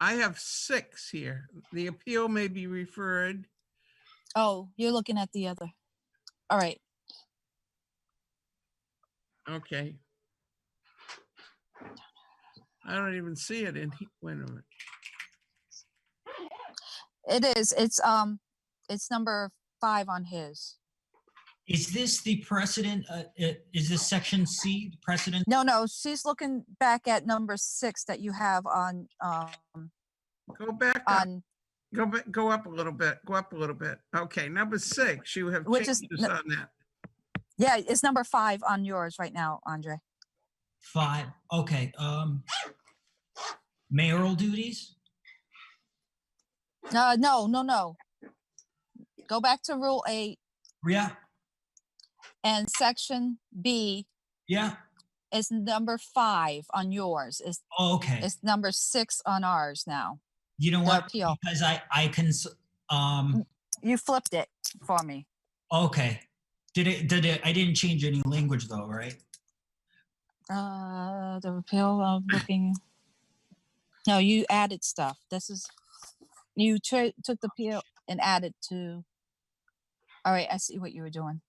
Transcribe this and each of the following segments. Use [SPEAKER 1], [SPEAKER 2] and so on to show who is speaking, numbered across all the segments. [SPEAKER 1] I have six here. The appeal may be referred.
[SPEAKER 2] Oh, you're looking at the other. All right.
[SPEAKER 1] Okay. I don't even see it in, he- wait a minute.
[SPEAKER 2] It is. It's, um, it's number five on his.
[SPEAKER 3] Is this the precedent, uh, uh, is this section C the precedent?
[SPEAKER 2] No, no, she's looking back at number six that you have on, um,
[SPEAKER 1] Go back, up.
[SPEAKER 2] on,
[SPEAKER 1] go, ba- go up a little bit, go up a little bit. Okay, number six, you have
[SPEAKER 2] Which is
[SPEAKER 1] changes
[SPEAKER 2] n-
[SPEAKER 1] on that.
[SPEAKER 2] yeah, it's number five on yours right now, Andre.
[SPEAKER 3] Five, okay, um, mayoral duties?
[SPEAKER 2] Uh, no, no, no. Go back to rule eight
[SPEAKER 3] Yeah,
[SPEAKER 2] and section B
[SPEAKER 3] yeah,
[SPEAKER 2] is number five on yours. It's,
[SPEAKER 3] oh, okay.
[SPEAKER 2] it's number six on ours now.
[SPEAKER 3] You know
[SPEAKER 2] The
[SPEAKER 3] what?
[SPEAKER 2] appeal.
[SPEAKER 3] Because I, I cons, um,
[SPEAKER 2] Mm. You flipped it for me.
[SPEAKER 3] okay. Did it, did it, I didn't change any language though, right?
[SPEAKER 2] Uh, the repeal of booking. No, you added stuff. This is, you tra- took the peel and added to. All right, I see what you were doing.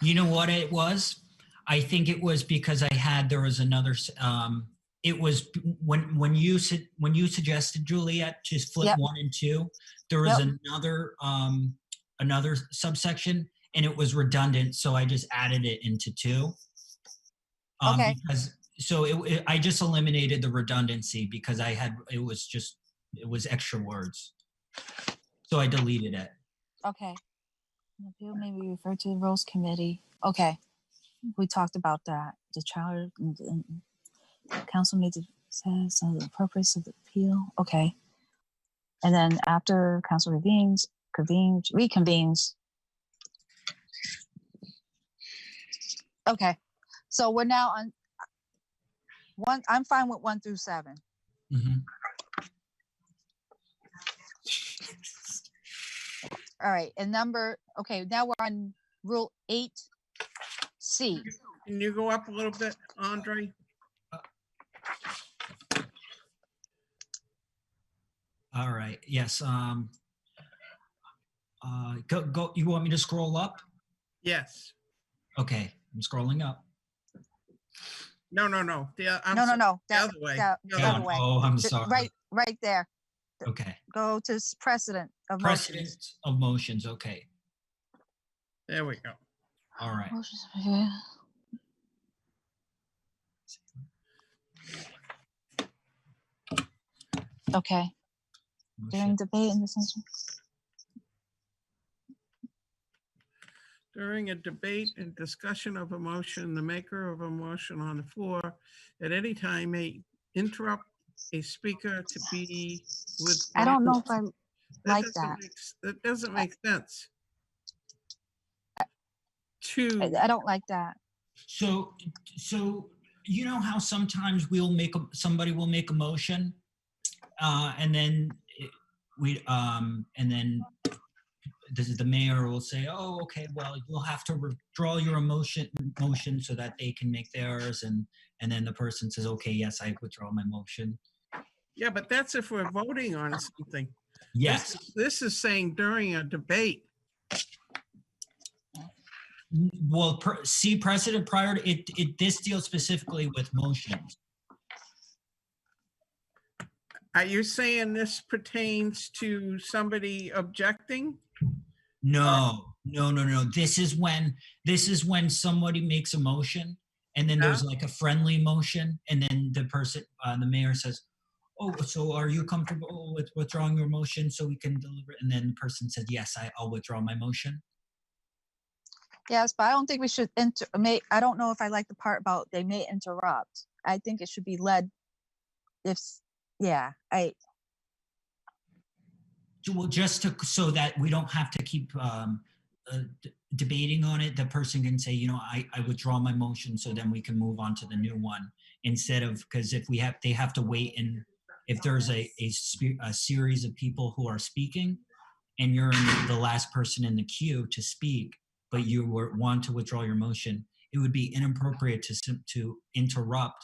[SPEAKER 3] You know what it was? I think it was because I had, there was another, s- um, it was b- when, when you said, when you suggested Juliet to flip
[SPEAKER 2] Yep.
[SPEAKER 3] one and two, there was
[SPEAKER 2] Yep.
[SPEAKER 3] another, um, another subsection and it was redundant, so I just added it into two. Um,
[SPEAKER 2] Okay.
[SPEAKER 3] Because, so it, it- I just eliminated the redundancy because I had, it was just, it was extra words. So I deleted it.
[SPEAKER 2] Okay. An Appeal may be referred to the rules committee. Okay. We talked about that. The child, mm, mm, mm. council made the, says of the purpose of the appeal. Okay. And then after council revenes, convenes, reconvenes. Okay. So we're now on one, I'm fine with one through seven.
[SPEAKER 3] Mhm.
[SPEAKER 2] All right. And number, okay, now we're on rule eight C.
[SPEAKER 1] Can you go up a little bit, Andre?
[SPEAKER 3] All right, yes, um, uh, go, go, you want me to scroll up?
[SPEAKER 1] Yes.
[SPEAKER 3] Okay, I'm scrolling up.
[SPEAKER 1] No, no, no. The- uh, I'm
[SPEAKER 2] No, no,
[SPEAKER 1] sorry,
[SPEAKER 2] no.
[SPEAKER 1] The
[SPEAKER 2] that-
[SPEAKER 1] other way.
[SPEAKER 2] that-
[SPEAKER 1] the
[SPEAKER 2] that
[SPEAKER 1] other
[SPEAKER 3] Down.
[SPEAKER 1] way.
[SPEAKER 2] way.
[SPEAKER 3] Oh, I'm
[SPEAKER 2] th-
[SPEAKER 3] sorry.
[SPEAKER 2] Right, right there.
[SPEAKER 3] Okay,
[SPEAKER 2] Go to s- precedent of
[SPEAKER 3] precedent
[SPEAKER 2] motions.
[SPEAKER 3] of motions, okay,
[SPEAKER 1] There we go.
[SPEAKER 3] all right.
[SPEAKER 2] Motions, okay. Okay, during
[SPEAKER 3] motion.
[SPEAKER 2] debate in the session.
[SPEAKER 1] During a debate and discussion of a motion, the maker of a motion on the floor at any time may interrupt a speaker to be with.
[SPEAKER 2] I don't know if
[SPEAKER 1] one-
[SPEAKER 2] I, like
[SPEAKER 1] doesn't
[SPEAKER 2] that.
[SPEAKER 1] make s- That doesn't make sense. Two,
[SPEAKER 2] I I don't like that.
[SPEAKER 3] So, so you know how sometimes we'll make, a- somebody will make a motion? Uh, and then it- we, um, and then this is the mayor will say, oh, okay, well, you'll have to withdraw your emotion, motion so that they can make theirs. And, and then the person says, okay, yes, I withdraw my motion.
[SPEAKER 1] yeah, but that's if we're voting on something. This
[SPEAKER 3] Yes.
[SPEAKER 1] is- This is saying during a debate.
[SPEAKER 3] Well, per- see precedent prior to, it, it, this deals specifically with motions.
[SPEAKER 1] Are you saying this pertains to somebody objecting?
[SPEAKER 3] No, no, no, no. This is when, this is when somebody makes a motion and then there's like a friendly motion and then the person, uh, the mayor says, oh, so are you comfortable with withdrawing your motion so we can deliver? And then the person says, yes, I, I'll withdraw my motion.
[SPEAKER 2] Yes, but I don't think we should inter, may, I don't know if I like the part about they may interrupt. I think it should be led if, s- yeah, I,
[SPEAKER 3] Ju- Well, just to, so that we don't have to keep, um, uh, d- debating on it, the person can say, you know, I, I withdraw my motion so then we can move on to the new one instead of, because if we have, they have to wait and if there's a, a, spe- a series of people who are speaking and you're in the last person in the queue to speak, but you were, want to withdraw your motion, it would be inappropriate to, sim- to interrupt